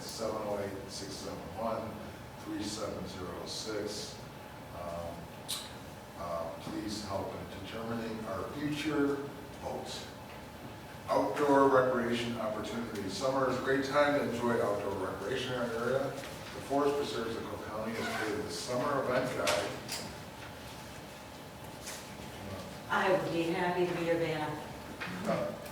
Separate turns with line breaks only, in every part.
seven oh eight, six seven one, three seven zero six. Um, uh, Please help in determining our future votes. Outdoor recreation opportunities. Summer is a great time to enjoy outdoor recreation in our area. The Forest Preserves of Cook County has created the Summer Event Guide.
I would be happy to be your banner.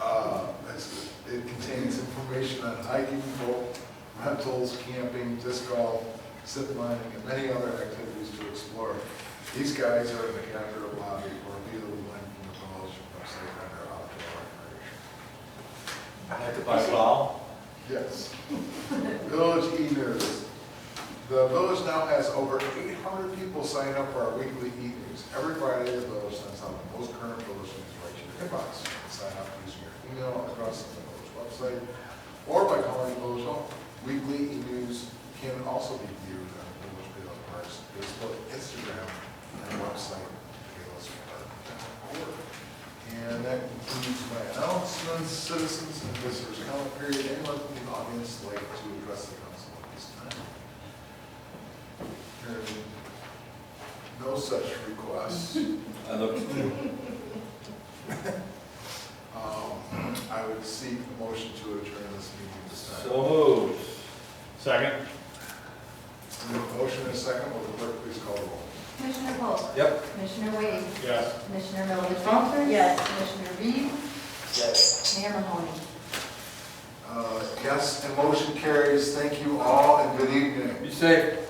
Uh, it's- It contains information on hiking, boat rentals, camping, disc golf, zip lining, and many other activities to explore. These guides are in the Capitol lobby or via the link from the promotion website under outdoor recreation.
I have to buy a plow.
Yes. Village e-news. The village now has over 800 people sign up for our weekly e-news. Every Friday, the village sends out the most current village news right to your inbox. You can Sign up using your email across the village website or by calling the village home. Weekly e-news can also be viewed on the Village Village Parks Facebook, Instagram, and website, villagepark.org. And that concludes my announcements, citizens and visitors comment period. Anyone in the audience like to address the council at this time? Hearing no such requests.
I look,
um, I would seek a motion to adjourn this meeting this time.
so moved. Second?
We have a motion and a second. Will the clerk please call the roll?
Commissioner Polk.
Yep.
Commissioner Wade.
Yes.
Commissioner Milovich Walters.
Yes.
Commissioner Reed. Yes. Mayor Mahoney.
Uh, Yes, and motion carries. Thank you all and good evening.
Be safe.